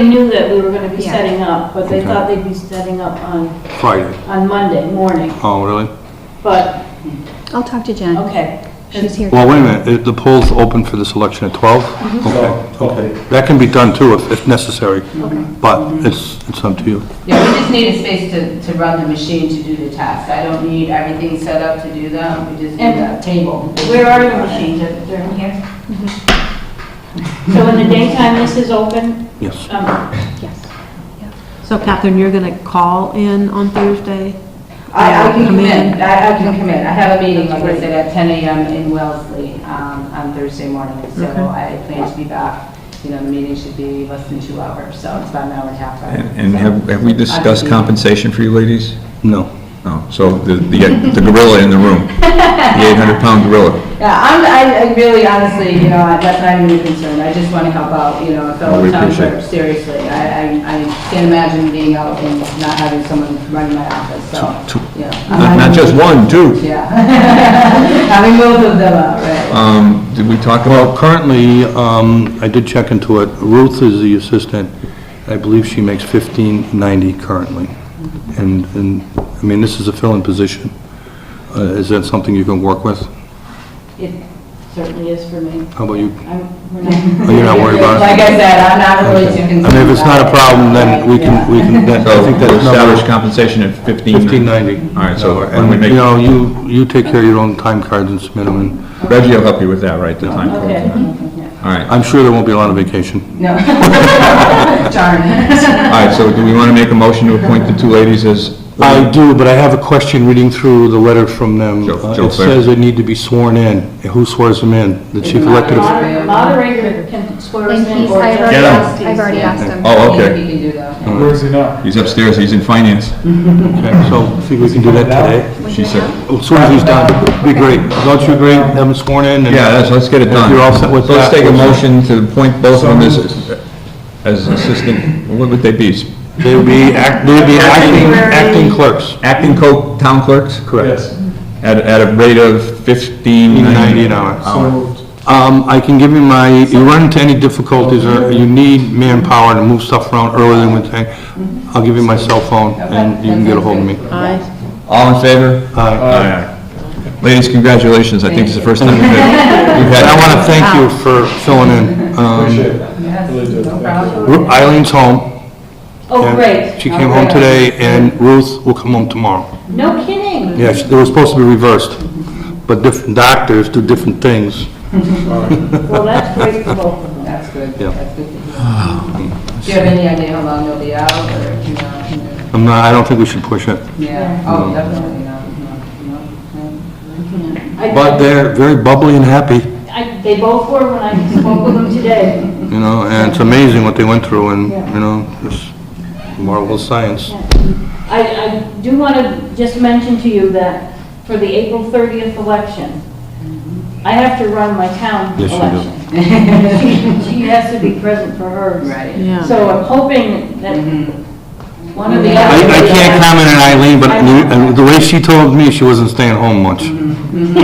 They knew that we were gonna be Yeah. setting up, but they Okay. thought they'd be setting up on, Friday. on Monday morning, Oh, really? but, I'll talk to Jen. okay. She's here. Well, wait a minute, It- the poll's open for this election at 12? Okay, okay. That can be done too if, if necessary, but it's, it's up to you. Yeah, we just need a space to, to run the machine to do the tasks. I don't need everything set up to do that, we just need And- a table. Where are your machines? Are they in here? Mm-hmm. So in the daytime, this is open? Yes. Um, Yes. So Catherine, you're going to call in on Thursday? I, I can Come come in. in, I, I can come in. I have a meeting, like I said, at ten AM in Wellesley, um, on Thursday morning. So I plan to be back, you know, the meeting should be less than two hours, so it's about an hour and a half. right? And and have, have we discussed compensation for you ladies? No. No, so the, the the gorilla in the room, the 800-pound gorilla. Yeah, I'm, I, I really honestly, you know, I- that's not even a concern, I just wanna help out, you know, Oh, fellow we town appreciate clerk, it. seriously. I, I, I can't imagine being out and not having someone running my office, Two- so, two. yeah. Not not just one, two. Yeah. Having both of them out, right. Uh, Um, Did we talk Well, about, currently, um, I did check into it, Ruth is the assistant, I believe she makes 1590 currently. And, and, I mean, this is a fill-in position. Uh, Is that something you can work with? It certainly is for me. How about you? I'm, we're not, Are you not worried about it? Like I said, I'm not really too concerned. I mean, if it's not a about it, problem, then we yeah. can, we can, that- I so think that's established number compensation at 15? 1590. All right, so, and we And, make, you know, you, you take care of your own time cards and submit them, and Reggie will help you with that, right, the time. code. okay. All right, I'm sure there won't be a lot of vacation. No. Darn. all right, so do we want to make a motion to appoint the two ladies as? I do, but I have a question reading through the letter from them. Joe- Uh, Joe It Fair. says they need to be sworn in. Uh, Who swears them in? The chief elected official? Moder- Moderator can swear us And in he's, or I've already Get him. asked, I've already asked him. Oh, He- okay, He can do that. Where is he now? he's upstairs, he's in finance, Okay, so I think we can do that today. she said. As soon as he's done, be great. Don't you agree, have him sworn in? and- Yeah, let's, let's get it If done. you're all set with So Let's that, take a we'll- motion to appoint both of them as, as assistant, what would they be? They would be, act- they would be acting, acting clerks. Acting co, town clerks? Yes. At, at a rate of fifteen ninety? 15.90 an hour. So moved. Um, I can give you my, you run into any difficulties or you need manpower to move stuff around earlier than we think, I'll give you my cell phone and you can get a hold of me. I All in favor? Uh, Aye. Ladies, congratulations, I think this is the first time we've had. we've And had- I want to thank you for filling in. Um, Appreciate it. Yes, Really good. no Thank you. problem. Ru- Eileen's home. Oh, and great. She came home today and Ruth will come home tomorrow. No kidding. Yeah, she- they were supposed to be reversed, but different doctors do different things. Well, that's great for both of them. That's good, Yeah. that's good to hear. Ah. Do you have any idea how long they'll be out, or, you know, I'm not, I don't think we should push it. yeah, oh, definitely, no, no, no, no. I- But they're very bubbly and happy, I, they both were when I spoke with them today. you know, and it's amazing what they went through and, you know, it's marvelous science. I, I do want to just mention to you that for the April 30th election, I have to run my town Yes, you do. election. She she has to be present for hers. Right. Yeah. So I'm hoping that one of the I, other... I can't comment on Eileen, but the- the way she told me, she wasn't staying home much. And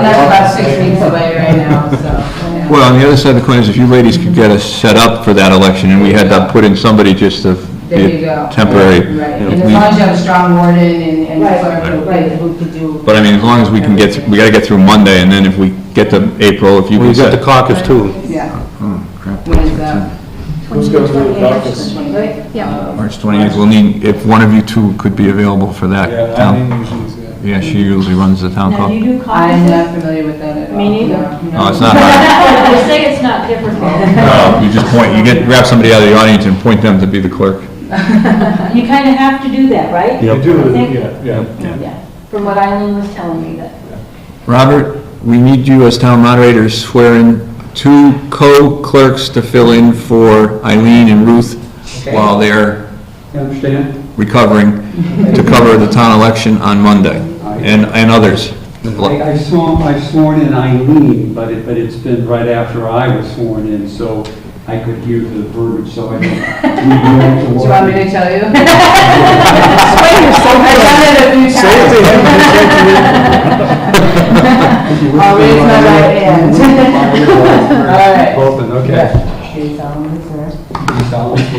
that's about six weeks away right now, so. yeah. Well, on the other side of the coin is if you ladies could get us set up for that election and we had to put in somebody just to There you go. temporary. Right, you know, and as we- long as you have a strong warden and, and Right, clerk who- right. who could do. But I mean, as long as we can get, we gotta get through Monday, and then if we get to April, if you We can got set... the caucus too. Yeah. crap. When is uh, that? Who's going to the doctors? Right? Yeah. March 28th, we'll need, if one of you two could be available for that Yeah, town. Eileen usually is, yeah. Yeah, she usually runs the town Now, do call. you do I'm not caucuses? familiar with that at all. Me neither. No, Oh, it's not hard. They say it's not difficult. No, Uh, You just point, you get, grab somebody out of the audience and point them to be the clerk. You kind of have to do that, right? You do, Thank- yeah, yeah. Yeah. From what Eileen was telling me that. Robert, we need you as town moderator to swear in two co-clerks to fill in for Eileen and Ruth while they're You understand? recovering to cover the town election on Monday, and, and others. I I saw, I sworn in Eileen, but it, but it's been right after I was sworn in, so I could hear the verbiage, so I don't. Do you want me to tell you? I've done it a few times. I'll raise my right hand. All right. Both, okay. Do you solemnly swear? You solemnly swear